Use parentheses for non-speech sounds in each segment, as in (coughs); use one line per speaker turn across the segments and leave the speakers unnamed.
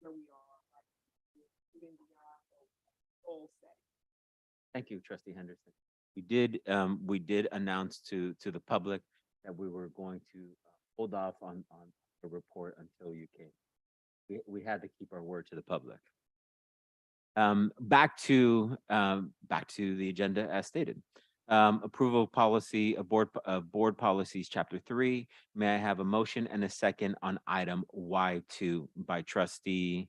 where we are, like, even beyond the goal setting.
Thank you, trustee Henderson. We did, um, we did announce to, to the public that we were going to uh, hold off on, on the report until you came. We, we had to keep our word to the public. Um, back to, um, back to the agenda as stated. Um, approval of policy, of board, of board policies, chapter three. May I have a motion and a second on item Y two by trustee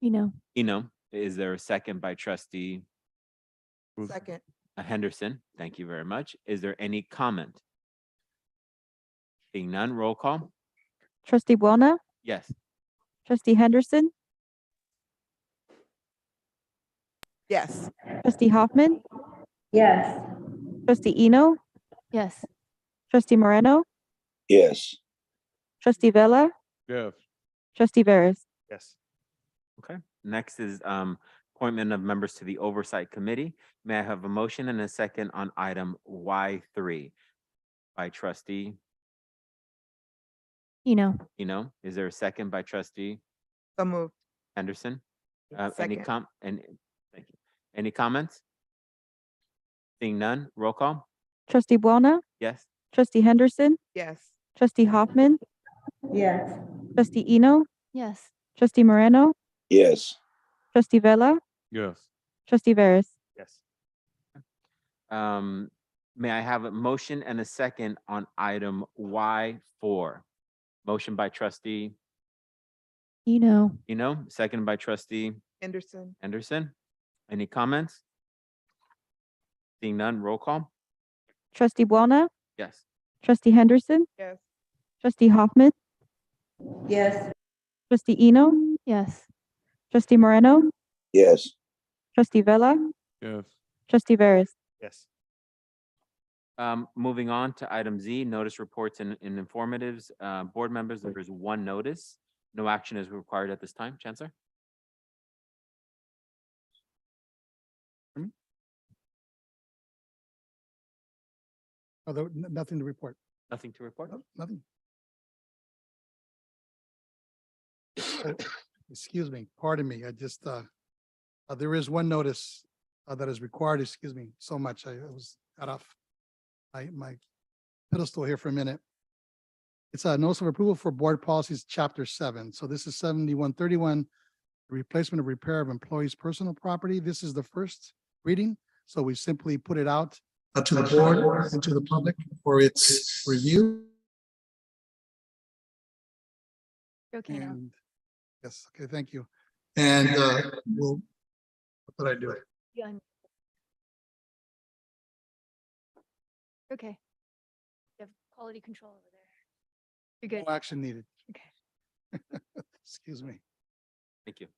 You know,
Eno? Is there a second by trustee
Move-
Second,
Uh, Henderson, thank you very much. Is there any comment? Seeing none, roll call.
trustee Buona,
Yes,
trustee Henderson,
yes,
trustee Hoffman. Yes. Trustee Eno,
Yes.
trustee Moreno,
yes,
trustee Vella,
Yes.
trustee Veras.
Yes.
next is um appointment of members to the Oversight Committee. May I have a motion and a second on item Y three? By trustee,
You know,
you know, is there a second by trustee
so moved,
Henderson? Uh, any
Second.
com, and, thank you. Any comments? Seeing none, roll call.
trustee Buona,
Yes,
trustee Henderson,
yes,
trustee Hoffman. Yes. Trustee Eno,
Yes.
trustee Moreno,
yes,
trustee Vella,
Yes.
trustee Veras.
Yes.
Um, may I have a motion and a second on item Y four? Motion by trustee,
You know,
you know, second by trustee
Henderson,
Anderson. Any comments? Seeing none, roll call?
trustee Buona,
Yes.
trustee Henderson,
yes,
trustee Hoffman. Yes. Trustee Eno,
Yes.
trustee Moreno,
yes,
trustee Vella,
Yes.
trustee Veras.
Yes.
Um, moving on to item Z, notice reports and, and informatives. Uh, board members, there is one notice. No action is required at this time. Chancellor?
Although, n- nothing to report.
Nothing to report?
No- Nothing. Oh, (coughs) Excuse me, pardon me. I just, uh, uh, there is one notice uh, that is required, excuse me, so much. I I was cut off. My, my pedestal here for a minute. It's a notice of approval for board policies, chapter seven. So this is seventy-one thirty-one, replacement of repair of employees' personal property. This is the first reading, so we simply put it out uh, to the board and to the public for its review.
Okay. now.
And, yes, okay, thank you. And, uh, we'll, what did I do?
You un- Okay. You have quality control over there. You're
No
good.
action needed.
Okay.
(laughs) Excuse me.
Thank you.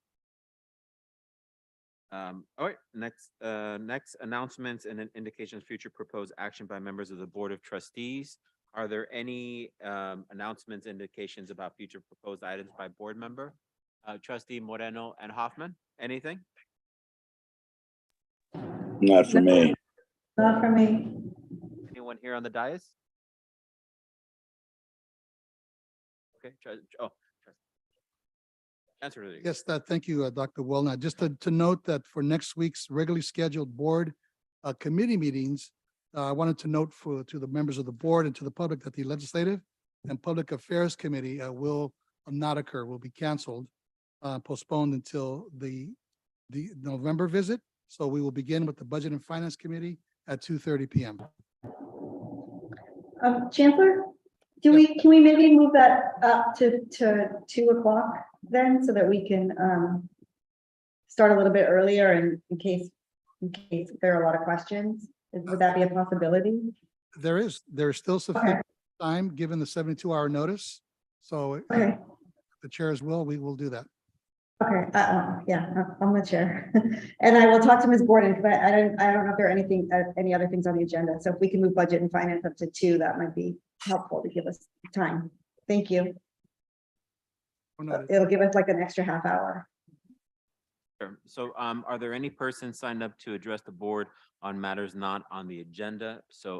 Um, all right, next, uh, next announcements and an indication of future proposed action by members of the Board of Trustees. Are there any, um, announcements, indications about future proposed items by board member? Uh, trustee Moreno and Hoffman, anything?
not for me,
Anyone here on the dais? Okay, trustee, oh. trust- Answer to the.
Yes, that, thank you, uh, Dr. Wellnut. Just to, to note that for next week's regularly scheduled board uh, committee meetings, uh, I wanted to note for, to the members of the board and to the public that the Legislative and Public Affairs Committee uh, will not occur, will be canceled, uh, postponed until the, the November visit. So we will begin with the Budget and Finance Committee at two thirty PM.
Um, Chancellor, do we, can we maybe move that up to, to two o'clock then, so that we can, um, start a little bit earlier in, in case, in case there are a lot of questions? Is- Would that be a possibility?
There is, there is still sufficient time, given the seventy-two hour notice. So uh,
Okay,
the chairs will, we will do that.
okay, uh, uh, yeah, I'm- I'm the chair. (laughs) And I will talk to Ms. Gordon, because I I don't, I don't know if there are anything, uh, any other things on the agenda. So if we can move budget and finance up to two, that might be helpful to give us time. Thank you.
Or not,
It'll give us like an extra half hour.
Sure. So um, are there any persons signed up to address the board on matters not on the agenda? So